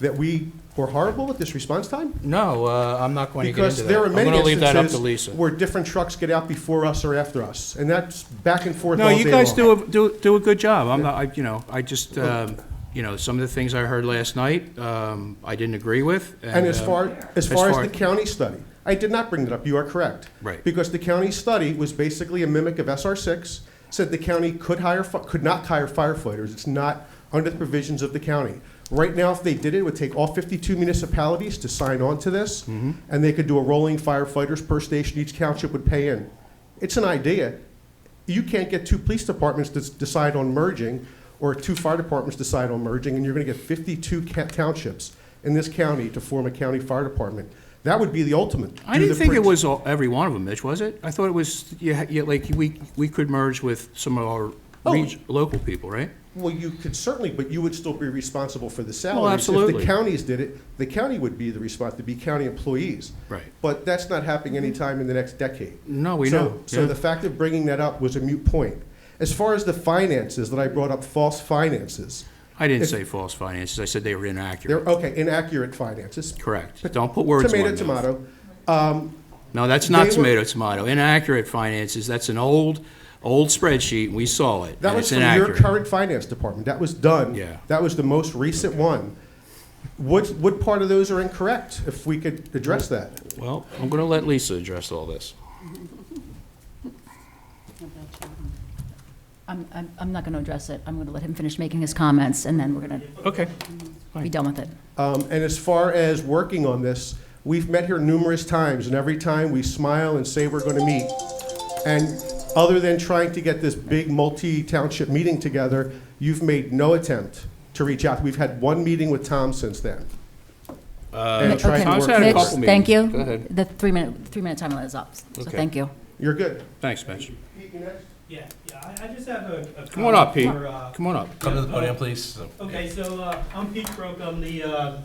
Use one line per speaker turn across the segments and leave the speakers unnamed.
that we were horrible with this response time?
No, uh, I'm not going to get into
Because
that.
there are many
I'm going to leave that up to
instances
Lisa.
where different trucks get out before us or after us, and that's back and forth all
No,
day
you guys
long.
do, a- do, do a good job. I'm not, I, you know, I just, um, you know, some of the things I heard last night, um, I didn't agree with.
And as
um,
far, as far as the county study, I did not bring that up, you are correct.
Right.
Because the county study was basically a mimic of SR six, said the county could hire, fi- could not hire firefighters, it's not under the provisions of the county. Right now, if they did it, it would take all fifty-two municipalities to sign on to this,
Mm-hmm.
and they could do a rolling firefighters per station, each township would pay in. It's an idea, you can't get two police departments to s- decide on merging, or two fire departments decide on merging, and you're gonna get fifty-two ca- townships in this county to form a county fire department. That would be the ultimate.
I
Do
didn't
the
think it
prints.
was all, every one of them, Mitch, was it? I thought it was, yeah, yeah, like, we, we could merge with some of our
Oh.
reg- local people, right?
Well, you could certainly, but you would still be responsible for the salaries. If
absolutely.
the counties did it, the county would be the response, to be county employees.
Right.
But that's not happening anytime in the next decade.
No, we
So-
know,
So
yeah.
the fact of bringing that up was a mute point. As far as the finances, that I brought up false finances,
I didn't say false finances. I said they were
they're,
inaccurate.
okay, inaccurate finances,
Correct. Don't put words in my
Tomato,
mouth.
tomato.
No, that's not
They were-
tomato, tomato. Inaccurate finances, that's an old, old spreadsheet, we saw it,
That
and
was
it's
from your
inaccurate.
current finance department. That was done.
Yeah.
That was the most recent one. What, what part of those are incorrect, if we could address that?
Well, I'm going to let Lisa address all this.
I'm, I'm, I'm not going to address it. I'm going to let him finish making his comments, and then we're going to
Okay.
be done with it.
Um, and as far as working on this, we've met here numerous times, and every time we smile and say we're gonna meet. And other than trying to get this big multi-township meeting together, you've made no attempt to reach out. We've had one meeting with Tom since then. And
Mitch,
trying to work
okay.
Tom's had a
towards-
Mitch,
couple meetings.
thank you.
Go ahead.
The three-minute, three-minute time limit is up, so
Okay.
thank you.
You're good.
Thanks, Mitch.
Yeah, yeah, I, I just have a. a
Come on up, Pete.
comment for, uh,
Come on up.
Come to the podium, please.
Okay, so, uh, I'm Pete Croak, I'm the, uh,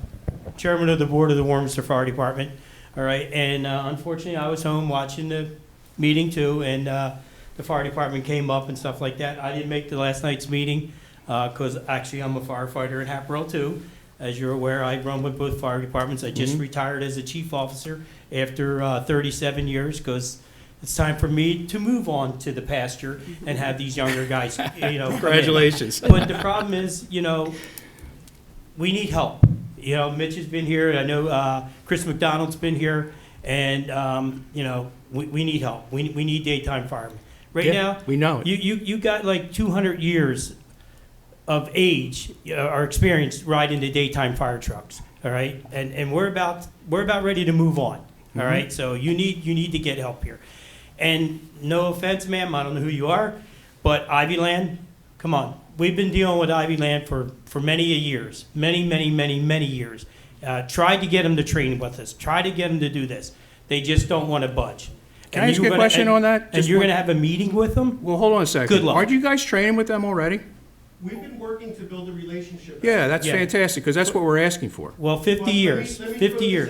chairman of the board of the Warminster Fire Department. All right, and uh, unfortunately, I was home watching the meeting too, and, uh, the fire department came up and stuff like that. I didn't make the last night's meeting, uh 'cause cause actually I'm a firefighter in Haverhill too. As you're aware, I run with both fire departments. I just retired as a chief officer after, uh, thirty-seven years, cause it's time for me to move on to the pasture and have these younger guys, you know. come in.
Congratulations.
But the problem is, you know, we need help. You know, Mitch has been here, I know uh, Chris McDonald's been here, and, um, you know, we, we need help. We, we need daytime firemen. Right
Yeah,
now,
We know it.
you, you, you got like 200 years of age uh, or experience riding the daytime fire trucks. All right, and and we're about we're about ready to move on.
Mm-hmm.
all right, so you need you need to get help here. And no offense, ma'am, I don't know who you are, but Ivy Land, come on, we've been dealing with Ivy Land for for many a years, many many many many years. Uh, tried to get them to train with us, tried to get them to do this. They just don't want to budge.
Can I
And
ask
you're
you a
gonna-
question
and-
on that?
And
Just
you're
one-
going to have a meeting with them?
Well, hold on a second.
Good luck.
Aren't you guys training with them already?
We've been working to build a relationship.
Yeah, that's
Yeah.
fantastic, because that's what we're asking for.
Well, 50 years, 50 years.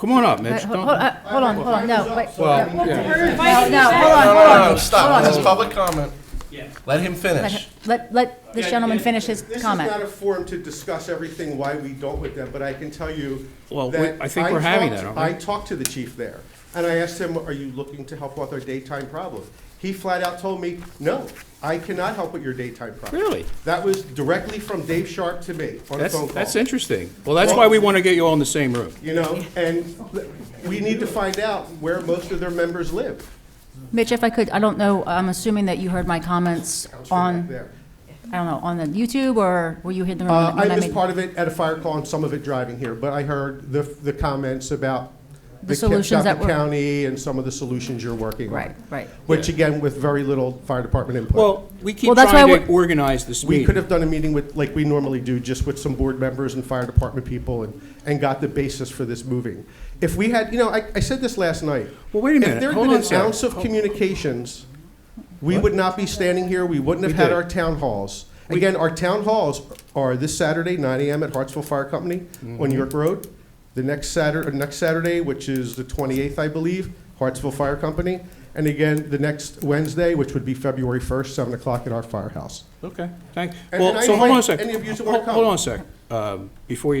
Come on up, Mitch.
Hold
Don't-
on, hold on, no, wait.
Well,
No,
yeah.
no, hold on, hold on.
No, no, stop. This is public comment.
Yeah.
Let him
Let
finish.
him- Let, let this gentleman finish his
This is not
comment.
a forum to discuss everything, why we don't with them, but I can tell you
Well, we-
that.
I think we're having
talked-
that, aren't we?
I talked to the chief there, and I asked him, are you looking to help with our daytime problem? He flat out told me, no, I cannot help with your daytime problem.
Really?
That was directly from Dave Sharp to me on a
That's,
phone call.
that's interesting. Well, that's why we want to get you all in the same room.
You know, and we need to find out where most of their members live.
Mitch, if I could, I don't know, I'm assuming that you heard my comments
Comes from back
on,
there.
I don't know, on the YouTube, or were you in the room?
Uh,
when
I missed
made-
part of it at a fire call and some of it driving here, but I heard the, the comments about
The
the Kip-
solutions that
Suffolk
were-
County and some of the solutions you're working on.
Right, right.
Which again, with very little fire department input.
Well, we keep
Well, that's why
trying to
we're-
organize this meeting.
We could have done a meeting with, like we normally do, just with some board members and fire department people and, and got the basis for this moving. If we had, you know, I, I said this last night.
Well, wait a minute.
If there had
Hold
been
on
an
a sec.
ounce of communications, we would not be standing here, we wouldn't have
We
had
did.
our town halls. Again, our town halls are this Saturday, nine AM at Hartsville Fire Company
Mm-hmm.
on York Road. The next Saturday, next Saturday, which is the twenty-eighth, I believe, Hartsville Fire Company. And again, the next Wednesday, which would be February first, seven o'clock at our firehouse.
Okay, thank,
And- and
well,
I
so hold on a
invite
second.
any of you to wanna
Hold on
come.
a second, Um, before you